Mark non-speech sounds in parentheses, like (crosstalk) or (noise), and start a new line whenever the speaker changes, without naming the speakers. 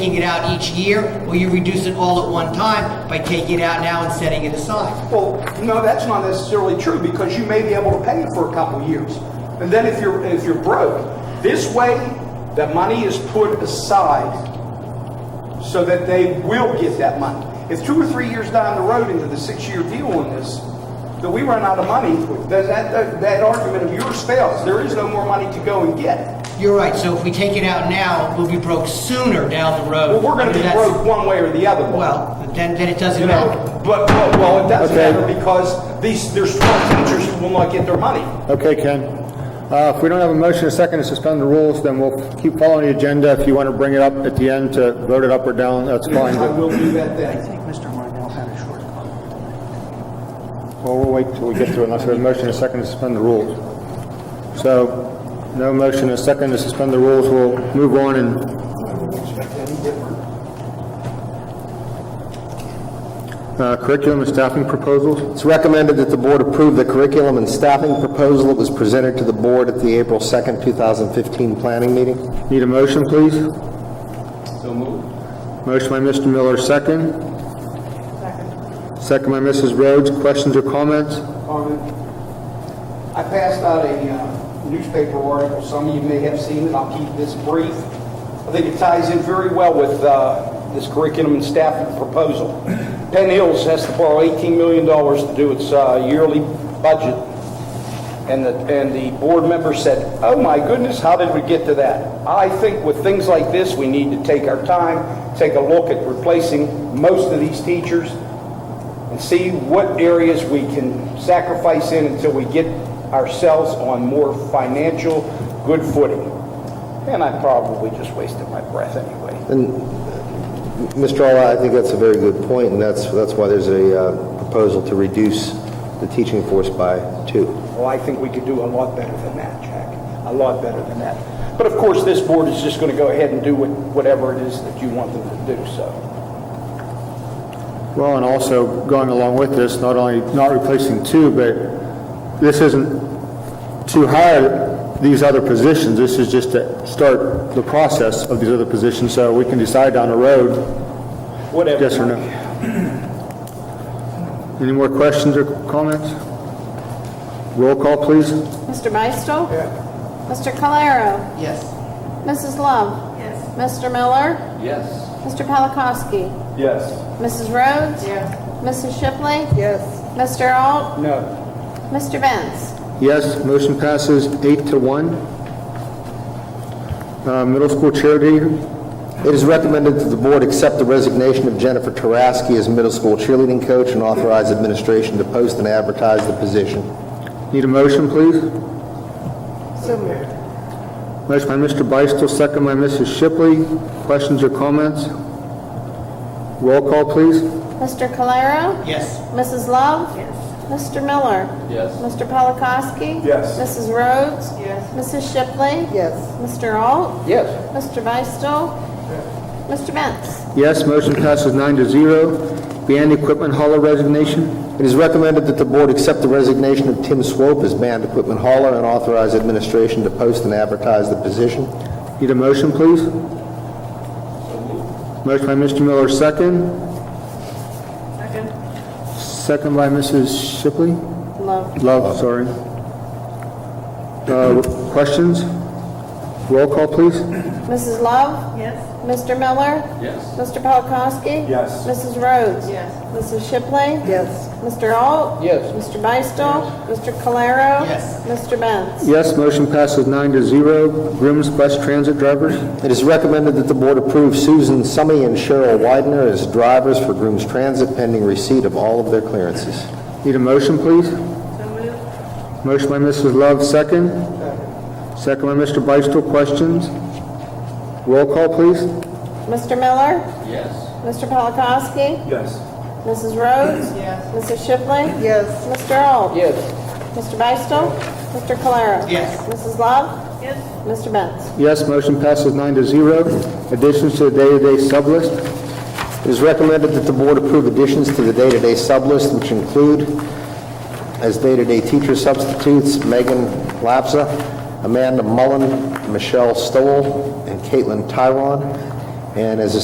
taking it out each year, or you reduce it all at one time by taking it out now and setting it aside?
Well, no, that's not necessarily true because you may be able to pay it for a couple of years. And then if you're, if you're broke, this way, the money is put aside so that they will get that money. If two or three years down the road into the six-year deal on this, that we run out of money, that, that, that argument of yours fails. There is no more money to go and get.
You're right, so if we take it out now, we'll be broke sooner down the road.
Well, we're gonna be
That's-
broke one way or the other.
Well, then, then it doesn't
You
matter.
know, but, but- well, it doesn't
Okay.
matter because these, there's 12 teachers who will not get their money.
Okay, Ken. Uh, If we don't have a motion, a second to suspend the rules, then we'll keep following the agenda. If you want to bring it up at the end to vote it up or down, that's fine.
I
but-
will do that then.
think Mr. Marnell had a short comment.
Well, we'll wait till we get to it unless there's a motion, a second to suspend the rules. So, no motion, a second to suspend the rules, we'll move on and... Uh, Curriculum and staffing proposals?
It's recommended that the board approve the curriculum and staffing proposal that was presented to the board at the April 2nd, 2015 planning meeting.
Need a motion, please?
So moved.
Motion by Mr. Miller, second. Second. Second by Mrs. Rhodes, questions or comments?
Comment? I passed out a uh, newspaper article, some of you may have seen it, I'll keep this brief. I think it ties in very well with uh, this curriculum and staffing proposal. (clears throat) Penn Hills has to borrow $18 million to do its uh, yearly budget, and the, and the board member said, "Oh my goodness, how did we get to that?" I think with things like this, we need to take our time, take a look at replacing most of these teachers, and see what areas we can sacrifice in until we get ourselves on more financial good footing. And I probably just wasted my breath anyway.
Mr. Alla, I think that's a very good point, and that's, that's why there's a uh, proposal to reduce the teaching force by two.
Well, I think we could do a lot better than that, Jack. A lot better than that. But of course, this board is just going to go ahead and do what- whatever it is that you want them to do, so.
Well, and also going along with this, not only not replacing two, but this isn't to hire these other positions. This is just to start the process of these other positions, so we can decide down the road,
Whatever.
yes or no. Any more questions or comments? Roll call, please.
Mr. Beistel? Mr. Calero?
Yes.
Mrs. Love? Yes. Mr. Miller? Yes. Mr. Polakowski?
Yes.
Mrs. Rhodes? Yes. Mrs. Shipley? Yes. Mr. Alt?
No.
Mr. Benz?
Yes, motion passes eight to one. Uh, Middle school cheerleader,
It is recommended that the board accept the resignation of Jennifer Taraski as middle school cheerleading coach and authorize administration to post and advertise the position.
Need a motion, please? So moved. Motion by Mr. Beistel, second by Mrs. Shipley. Questions or comments? Roll call, please.
Mr. Calero?
Yes.
Mrs. Love? Yes. Mr. Miller? Yes. Mr. Polakowski?
Yes.
Mrs. Rhodes? Yes. Mrs. Shipley? Yes. Mr. Alt?
Yes.
Mr. Beistel? Mr. Benz?
Yes, motion passes nine to zero. Band equipment hauler resignation.
It is recommended that the board accept the resignation of Tim Swope as band equipment hauler and authorize administration to post and advertise the position.
Need a motion, please? Motion by Mr. Miller, second. Second. Second by Mrs. Shipley.
Love.
Love, sorry. Uh, Questions? Roll call, please.
Mrs. Love? Yes. Mr. Miller? Yes. Mr. Polakowski?
Yes.
Mrs. Rhodes? Yes. Mrs. Shipley? Yes. Mr. Alt?
Yes.
Mr. Beistel? Mr. Calero?
Yes.
Mr. Benz?
Yes, motion passes nine to zero. Grooms Bus Transit drivers,
It is recommended that the board approve Susan Summy and Cheryl Widener as drivers for Grooms Transit pending receipt of all of their clearances.
need a motion, please? Motion by Mrs. Love, second. Second by Mr. Beistel, questions? Roll call, please.
Mr. Miller? Yes. Mr. Polakowski?
Yes.
Mrs. Rhodes? Yes. Mrs. Shipley? Yes. Mr. Alt?
Yes.
Mr. Beistel? Mr. Calero?
Yes.
Mrs. Love? Yes. Mr. Benz?
Yes, motion passes nine to zero. Additions to the day-to-day sublist,
It is recommended that the board approve additions to the day-to-day sublist, which include as day-to-day teacher substitutes Megan Lapsa, Amanda Mullen, Michelle Stoll, and Caitlin Tyron, and as a